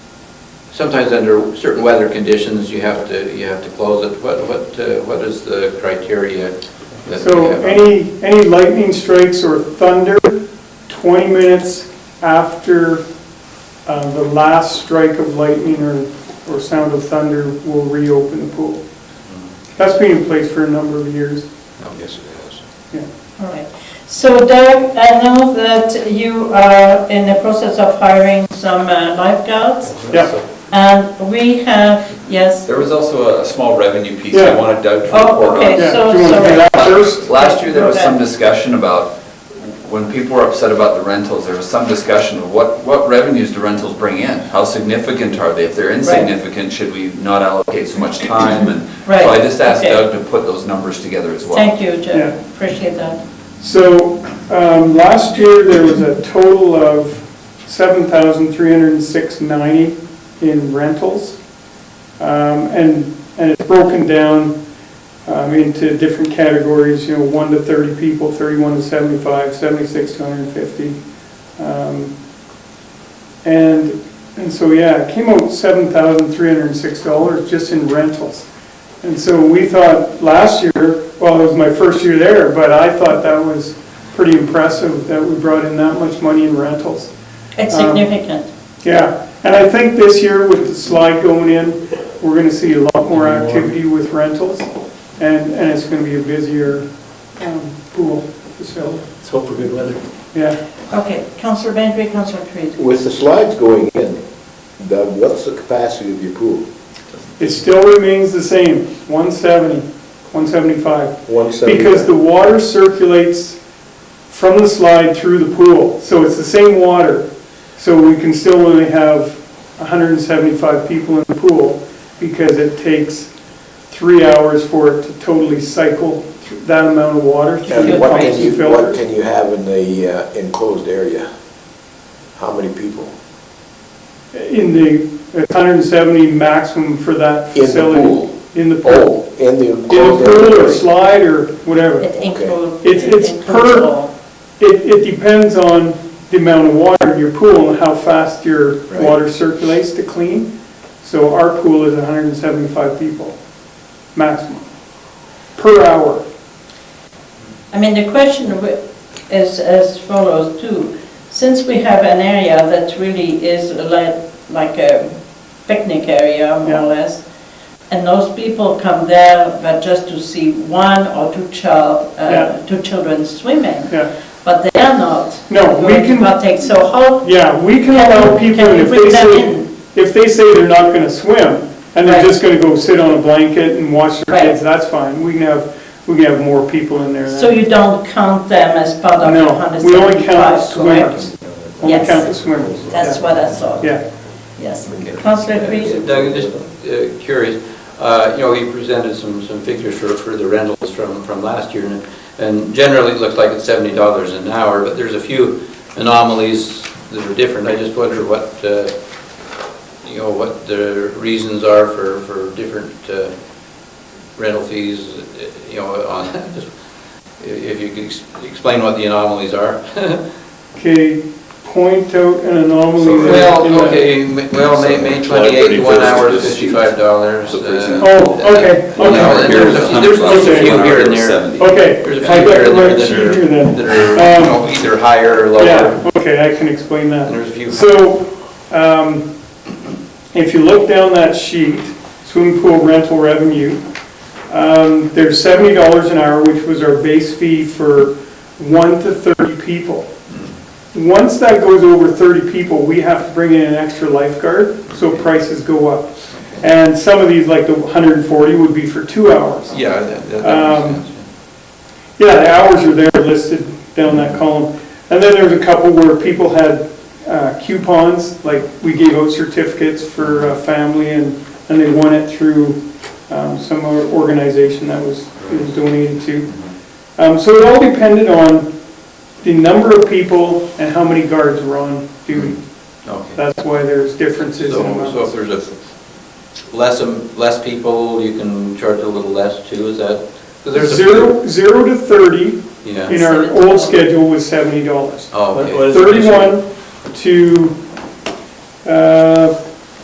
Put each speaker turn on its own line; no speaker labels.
sometimes under certain weather conditions, you have to, you have to close it. What, what, uh, what is the criteria that we
So
have?
any, any lightning strikes or thunder, 20 minutes after uh, the last strike of lightning or, or sound of thunder will reopen the pool. That's been in place for a number of years,
Oh, Yes, it is.
yeah.
All right. So Doug, I know that you are in the process of hiring some uh, lifeguards,
Yeah,
and we have, yes,
There was also a- a small revenue piece I
Yeah.
wanted Doug to
Oh,
report on.
okay.
yeah.
so
Do you want to do
sorry.
that first?
Last year, there was some
Okay.
discussion about, when people were upset about the rentals, there was some discussion of what, what revenues do rentals bring in? How significant are they? If they're insignificant, should we not allocate so much time? And so I
Right,
just asked
okay.
Doug to put those numbers together as well.
thank you,
Yeah.
Jeff, appreciate that.
So, um, last year, there was a total of 7,306.90 in rentals. Um, And, and it's broken down um, into different categories, you know, 1 to 30 people, 31 to 75, 76 to 150. Um, And, and so, yeah, it came out $7,306 just in rentals. And so we thought last year, well, it was my first year there, but I thought that was pretty impressive that we brought in that much money in rentals.
It's
Um,
significant.
Yeah, and I think this year with the slide going in, we're gonna see a lot more activity with rentals, and, and it's gonna be a busier um, pool facility,
Let's hope for good weather.
yeah.
Okay, Councillor Bantry, Councillor Creed.
With the slides going in, Doug, what's the capacity of your pool?
It still remains the same, 170, 175.
One seventy.
Because the water circulates from the slide through the pool, so it's the same water. So we can still only have 175 people in the pool because it takes three hours for it to totally cycle through that amount of water through the
And what
pumps
can
and
you, what
filters.
can you have in the uh, enclosed area? How many people?
In the it's 170 maximum for that
In the
facility.
pool?
In the pool.
Oh, in the
In the
enclosed
pool or
area?
slide or whatever.
It includes.
It's- it's per- It, it depends on the amount of water in your pool and how fast your
Right.
water circulates to clean. So our pool is 175 people, maximum, per hour.
I mean, the question wi- is as follows too. Since we have an area that really is like, like a picnic area, more
Yeah.
or less, and those people come there but just to see one or two child,
Yeah.
uh, two children swimming,
Yeah,
but they are not
No, we
going to
can-
partake. So how,
yeah, we can
Can-
allow people,
can
and
we
if
bring
they
them
say, if they say they're not gonna swim, and they're
Right.
just gonna go sit on a blanket and watch their
Right.
kids, that's fine. We can have, we can have more people in there.
so you don't count them as part of the
No, we only count the
175,
swimmers.
correct?
Only
Yes.
count the swimmers.
That's
Yeah.
what I thought,
Yeah.
yes. Councillor Creed?
Doug, I'm just uh, curious, uh, you know, he presented some, some figures for, for the rentals from, from last year, and- and generally it looks like it's seventy dollars an hour, but there's a few anomalies that are different. I just wonder what, uh, you know, what the reasons are for, for different uh, rental fees, uh, you know, on, if- if you could ex- explain what the anomalies are.
Okay, point out an anomaly. that- in
Well,
the-
okay, m- well, May, May twenty-eighth, one hour is fifty-five dollars. uh,
Oh, okay,
Well,
okay.
no, there's a few- there's just a few here and Oh. there.
Okay.
There's a few
I got
here
the
and there
right
that
sheet here
are,
then.
that are, you know, either higher or lower.
Yeah, okay, I can explain
And
that.
there's a few.
So, um, if you look down that sheet, swimming pool rental revenue, um, there's seventy dollars an hour, which was our base fee for one to thirty people. Once that goes over thirty people, we have to bring in an extra lifeguard, so prices go up. And some of these, like the hundred and forty, would be for two hours.
Yeah, that, that- that
Um,
makes sense.
Yeah, the hours are there listed down that column. And then there's a couple where people had uh, coupons, like we gave out certificates for uh, family and, and they won it through um, some other organization that was, it was donated to. Um, So it all depended on the number of people and how many guards were on duty.
Okay.
That's why there's differences in
So, so if
amounts.
there's a, less, um, less people, you can charge a little less too, is that? 'cause there's a few-
Zero, zero to 30
Yeah,
in our old schedule was $70.
oh,
What-
okay.
what is the ratio?
31 to, uh,